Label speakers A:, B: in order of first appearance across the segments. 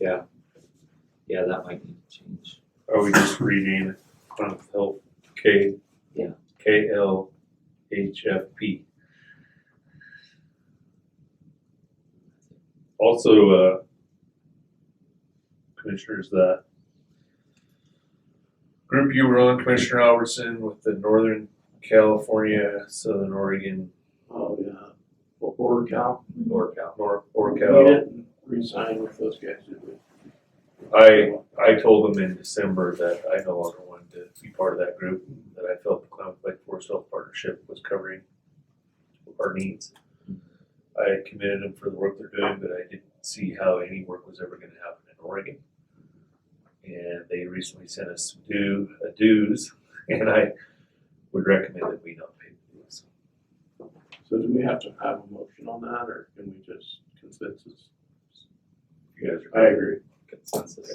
A: Yeah. Yeah, that might need to change.
B: Or we just rename it Chronic Health K.
A: Yeah.
B: K L H F P. Also, uh, commissioners, that group you were on, Commissioner Albertson, with the Northern California, Southern Oregon,
C: Oh, yeah, well, Border Cal.
A: Norcal.
B: North
C: We
B: Orcal.
C: didn't resign with those guys, did we?
B: I, I told them in December that I no longer wanted to be part of that group, that I felt the Climate Fight Forest Health Partnership was covering our needs. I commended them for the work they're doing, but I didn't see how any work was ever gonna happen in Oregon. And they recently sent us some due, uh, dues, and I would recommend that we not pay the dues.
C: So do we have to have a motion on that, or can we just consensus?
B: You guys
C: I
B: are,
C: agree.
A: Consensus.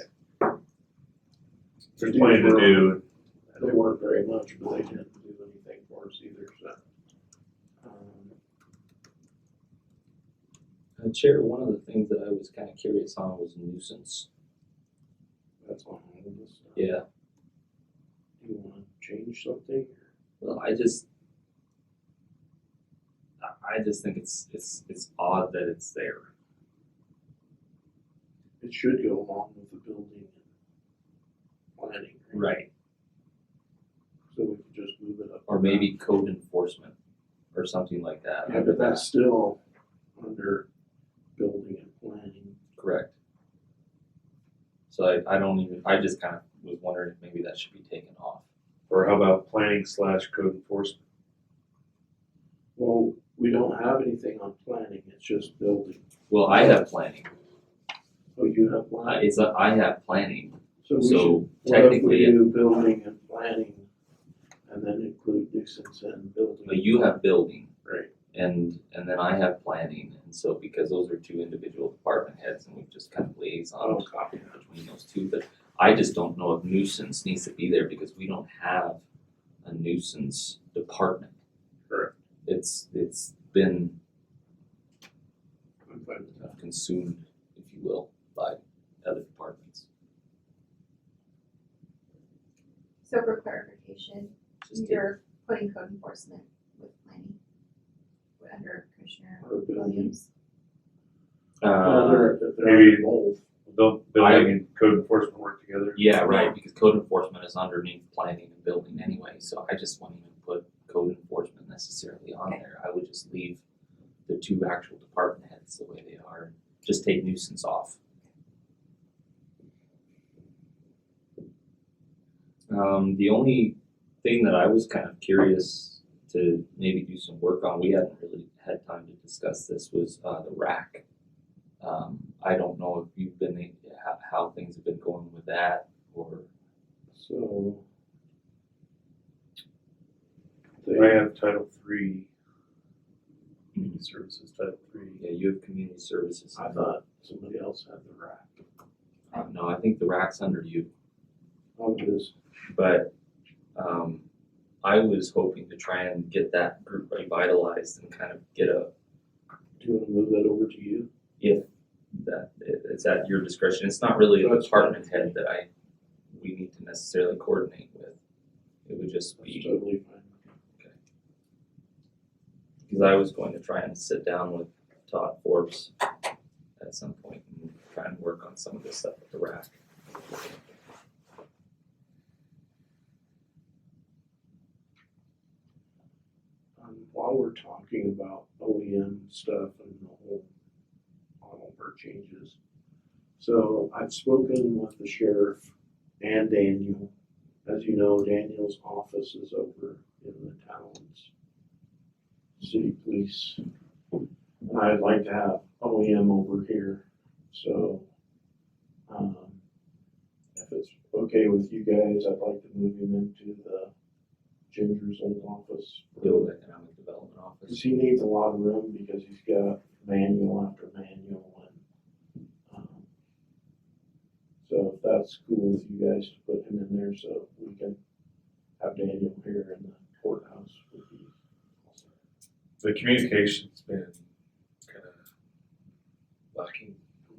B: there's plenty to do.
C: They weren't very much, but they didn't do anything for us either, so. um,
A: Uh, Chair, one of the things that I was kind of curious on was nuisance.
C: That's all I have on this. Do
A: Yeah,
C: you wanna change something?
A: well, I just, I, I just think it's, it's, it's odd that it's there.
C: It should go along with the building and planning.
A: Right.
C: So we could just move it up.
A: Or maybe code enforcement or something like that.
C: Yeah, but that's still under building and planning.
A: Correct. So I, I don't even, I just kind of was wondering if maybe that should be taken off.
B: Or how about planning slash code enforcement?
C: Well, we don't have anything on planning, it's just building.
A: Well, I have planning.
C: Oh, you have
A: I-
C: planning?
A: It's a, I have planning,
C: So we should,
A: so
C: what if we
A: technically,
C: do building and planning and then include nuisance and building?
A: but you have building.
C: Right.
A: And, and then I have planning, and so because those are two individual department heads and we've just kind of
C: I'll
A: liaisoned
C: copy that.
A: between those two, but I just don't know if nuisance needs to be there because we don't have a nuisance department.
B: Correct.
A: It's, it's been
C: I'm fine with that.
A: consumed, if you will, by other departments.
D: So for clarification,
A: Just to-
D: you're putting code enforcement with planning under Commissioner
C: Or building.
D: Williams.
C: Well,
A: Uh,
C: they're, they're
B: maybe-
C: both.
B: Don't building and code enforcement work together?
A: yeah, right, because code enforcement is underneath planning and building anyway, so I just wouldn't even put code enforcement necessarily on there. I would just leave the two actual department heads the way they are, just take nuisance off. Um, the only thing that I was kind of curious to maybe do some work on, we hadn't really had time to discuss this, was, uh, the rack. Um, I don't know if you've been, how, how things have been going with that, or,
C: So.
B: I
C: They,
B: have Title Three, Community Services Title Three.
A: yeah, you have community services.
C: I thought somebody else had the rack.
A: Uh, No, I think the rack's under you,
C: Oh, it is.
A: but, um, I was hoping to try and get that group revitalized and kind of get a,
C: Do you wanna move that over to you?
A: that, it- it's at your discretion, it's not really a
C: That's fine.
A: department head that I, we need to necessarily coordinate with. It would just
C: That's
A: be,
C: totally fine.
A: because I was going to try and sit down with Todd Forbes at some point and try and work on some of this stuff with the rack.
C: Um, while we're talking about OEM stuff and the whole Oliver changes. So I've spoken with the sheriff and Daniel. As you know, Daniel's office is over in the town's city police. And I'd like to have OEM over here, so, um, if it's okay with you guys, I'd like to move him into the Ginger's old office.
A: Build Economic Development Office.
C: Cause he needs a lot of room because he's got manual after manual and, um, so if that's cool with you guys to put him in there so we can have Daniel here in the courthouse would be awesome.
B: The communication's been